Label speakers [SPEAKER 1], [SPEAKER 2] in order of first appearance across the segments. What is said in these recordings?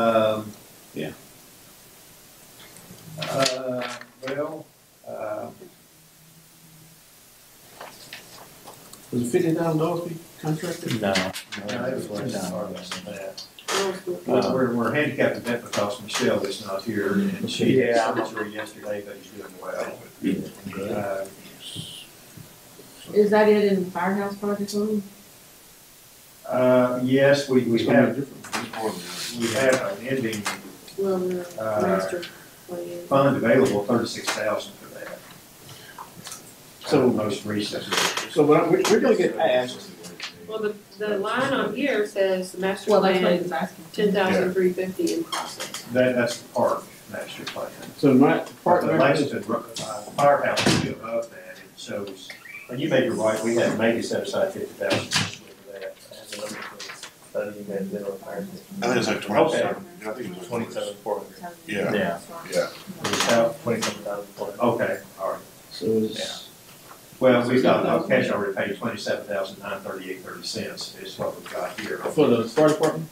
[SPEAKER 1] Um,
[SPEAKER 2] Yeah.
[SPEAKER 1] Uh, well, uh,
[SPEAKER 2] Was it fifty thousand dollars we contracted?
[SPEAKER 3] No.
[SPEAKER 1] no, it was less than
[SPEAKER 3] No.
[SPEAKER 1] far less than that.
[SPEAKER 3] Uh,
[SPEAKER 1] We're, we're handicapped a bit because Michelle is not here and she had surgery yesterday, but she's doing well. Uh,
[SPEAKER 4] Is that it in the firehouse project only?
[SPEAKER 1] Uh, yes, we, we
[SPEAKER 2] It's gonna
[SPEAKER 1] have,
[SPEAKER 2] be different.
[SPEAKER 1] we have an ending
[SPEAKER 4] Well, the
[SPEAKER 1] Uh,
[SPEAKER 4] master plan.
[SPEAKER 1] fund available, thirty-six thousand for that. So
[SPEAKER 2] So-
[SPEAKER 1] most recent.
[SPEAKER 2] So, but I'm- we're, we're gonna get asked,
[SPEAKER 5] Well, the, the line on here says the master
[SPEAKER 4] Well, that's what he
[SPEAKER 5] plan,
[SPEAKER 4] was asking.
[SPEAKER 5] ten thousand three fifty in process.
[SPEAKER 1] That, that's the park master plan.
[SPEAKER 2] so my
[SPEAKER 1] Part
[SPEAKER 2] part,
[SPEAKER 1] of the latest, uh, firehouse is above that, it shows, and you may be right, we have maybe set aside fifty thousand for that.
[SPEAKER 6] I think it's like twenty-seven, I think it was twenty-seven.
[SPEAKER 3] four
[SPEAKER 6] Yeah.
[SPEAKER 3] Yeah.
[SPEAKER 6] Yeah.
[SPEAKER 1] It was how-
[SPEAKER 3] Twenty-seven thousand four
[SPEAKER 1] Okay, all right.
[SPEAKER 2] so it's,
[SPEAKER 1] Well, we've got, uh, cash already paid twenty-seven thousand nine thirty-eight thirty cents is what we've got here
[SPEAKER 2] for the fire department,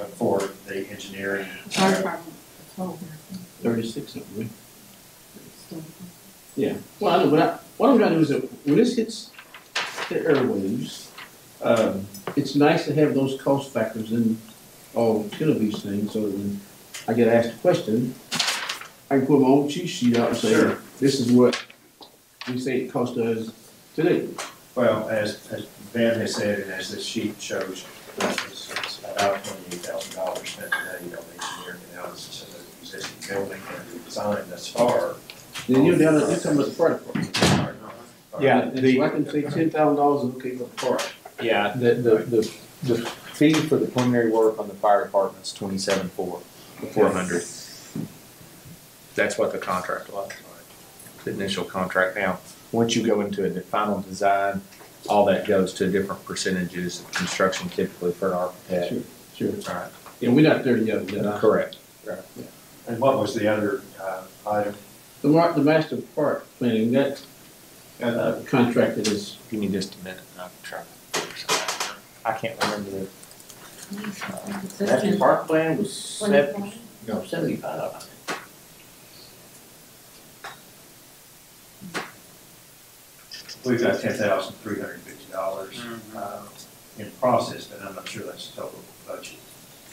[SPEAKER 1] uh, for the engineering.
[SPEAKER 4] Fire department. Oh,
[SPEAKER 2] thirty-six something, right?
[SPEAKER 4] so-
[SPEAKER 2] Yeah, well, I know, what I, what I'm trying to do is that when this hits the airwaves, um, it's nice to have those cost factors in all ten of these things, so when I get asked a question, I can put my own cheat sheet out and say,
[SPEAKER 1] Sure.
[SPEAKER 2] this is what we say it cost us today.
[SPEAKER 1] Well, as, as Ben has said, and as this sheet shows, it's it's about twenty-eight thousand dollars spent today on engineering analysis of the existing building and the design thus far.
[SPEAKER 2] Then you're down, you're talking about the fire department.
[SPEAKER 3] Yeah,
[SPEAKER 2] And
[SPEAKER 3] the-
[SPEAKER 2] so I can say ten thousand dollars is okay for the fire.
[SPEAKER 3] Yeah, the, the, the, the fee for the preliminary work on the fire department's twenty-seven four.
[SPEAKER 7] four hundred. That's what the contract was, the initial contract. Now,
[SPEAKER 3] Once you go into a de- final design, all that goes to different percentages of construction typically for an architect.
[SPEAKER 2] Sure.
[SPEAKER 3] Right.
[SPEAKER 2] Yeah, we're not there yet, but uh, I-
[SPEAKER 3] Correct.
[SPEAKER 1] And what was the other, uh, item?
[SPEAKER 2] the mar, the master park planning, that
[SPEAKER 1] Uh,
[SPEAKER 2] uh, contracted is
[SPEAKER 3] Give me just a minute and I'll try. to figure something out. I can't remember the
[SPEAKER 4] It's just
[SPEAKER 8] National
[SPEAKER 4] in-
[SPEAKER 8] Park Plan was seventy,
[SPEAKER 4] Twenty-five.
[SPEAKER 8] no, seventy-five.
[SPEAKER 1] We've got ten thousand three hundred and fifty dollars, uh, in process, but I'm not sure that's the total budget.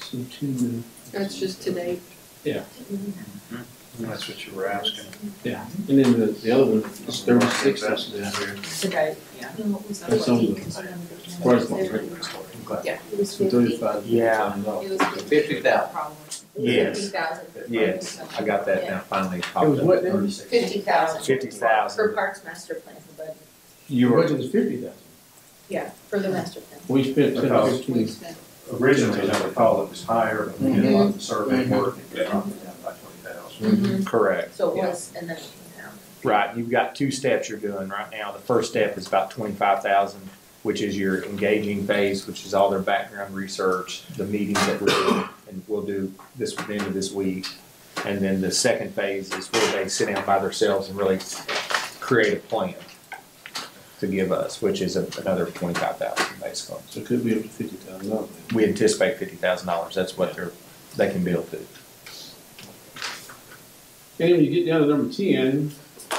[SPEAKER 2] So two minutes.
[SPEAKER 5] That's just today.
[SPEAKER 6] That's what you were asking.
[SPEAKER 2] Yeah, and then the, the other one is thirty-six, that's the,
[SPEAKER 4] Today, yeah.
[SPEAKER 2] that's on the first one, right?
[SPEAKER 4] Yeah. It was
[SPEAKER 2] So thirty-five.
[SPEAKER 3] Yeah.
[SPEAKER 2] It
[SPEAKER 8] Fifty thousand.
[SPEAKER 3] Yes.
[SPEAKER 4] Fifty thousand.
[SPEAKER 3] Yes, I got that now finally. popped
[SPEAKER 2] was
[SPEAKER 3] up.
[SPEAKER 2] what now?
[SPEAKER 1] Thirty-six.
[SPEAKER 4] Fifty thousand.
[SPEAKER 3] Fifty thousand.
[SPEAKER 4] Parks Master Plan for budget.
[SPEAKER 2] Your
[SPEAKER 3] You were,
[SPEAKER 2] budget is fifty thousand.
[SPEAKER 4] Yeah, for the master plan.
[SPEAKER 2] We spent ten
[SPEAKER 1] Because-
[SPEAKER 2] fifteen.
[SPEAKER 3] Mm-hmm.
[SPEAKER 1] Originally, as I recall, it was higher, but we did a lot of survey
[SPEAKER 2] Mm-hmm.
[SPEAKER 1] work and it dropped it down by twenty thousand.
[SPEAKER 3] correct.
[SPEAKER 4] So it
[SPEAKER 3] Yeah.
[SPEAKER 4] was, and then it came down.
[SPEAKER 3] Right, you've got two steps you're doing right now. The first step is about twenty-five thousand, which is your engaging phase, which is all their background research, the meetings that we're doing, and we'll do this at the end of this week. And then the second phase is where they sit down by themselves and really create a plan to give us, which is a- another twenty-five thousand basically.
[SPEAKER 2] So it could be up to fifty thousand dollars.
[SPEAKER 3] We anticipate fifty thousand dollars, that's what they're, they can build to.
[SPEAKER 2] And then when you get down to number ten,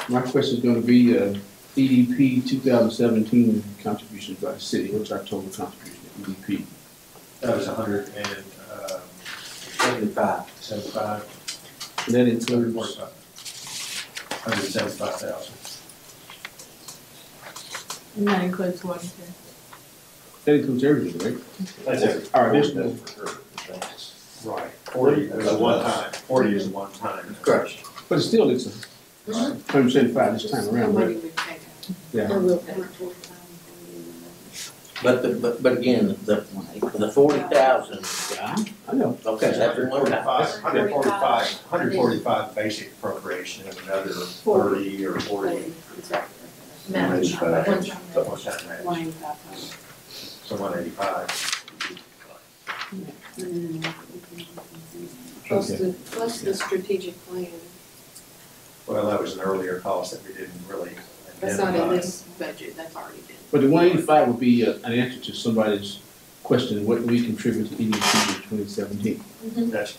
[SPEAKER 2] my question's gonna be, uh, EDP two thousand seventeen contributions by the city, what's our total contribution to E EDP?
[SPEAKER 1] That was a hundred and, um,
[SPEAKER 8] Seventy-five.
[SPEAKER 1] seventy-five.
[SPEAKER 2] And that
[SPEAKER 1] Hundred and
[SPEAKER 2] includes,
[SPEAKER 1] forty-five. Hundred and seventy-five thousand.
[SPEAKER 4] And that includes one, two.
[SPEAKER 2] that includes everything, right?
[SPEAKER 1] That's it.
[SPEAKER 2] Our additional,
[SPEAKER 1] Right. Forty is a one-time, forty is a one-time.
[SPEAKER 2] Correct. but still it's a hundred seventy-five this time around, right? Yeah.
[SPEAKER 4] Or will pay.
[SPEAKER 8] But, the- but, but again, the, the forty thousand,
[SPEAKER 2] I know,
[SPEAKER 8] okay, that's
[SPEAKER 1] Hundred
[SPEAKER 8] one time.
[SPEAKER 1] forty-five, hundred forty-five, hundred forty-five basic appropriation and another thirty or forty.
[SPEAKER 4] Manage.
[SPEAKER 1] One-time.
[SPEAKER 4] One-
[SPEAKER 1] One-time match, so one eighty-five.
[SPEAKER 5] Plus
[SPEAKER 2] Okay.
[SPEAKER 5] the, plus the strategic plan.
[SPEAKER 1] Well, that was an earlier cost that we didn't really
[SPEAKER 5] That's not in
[SPEAKER 1] identify.
[SPEAKER 5] this budget, that's already been.
[SPEAKER 2] But the one eighty-five would be uh, an E answer to somebody's question, what we contribute to EDP in twenty seventeen.
[SPEAKER 1] That's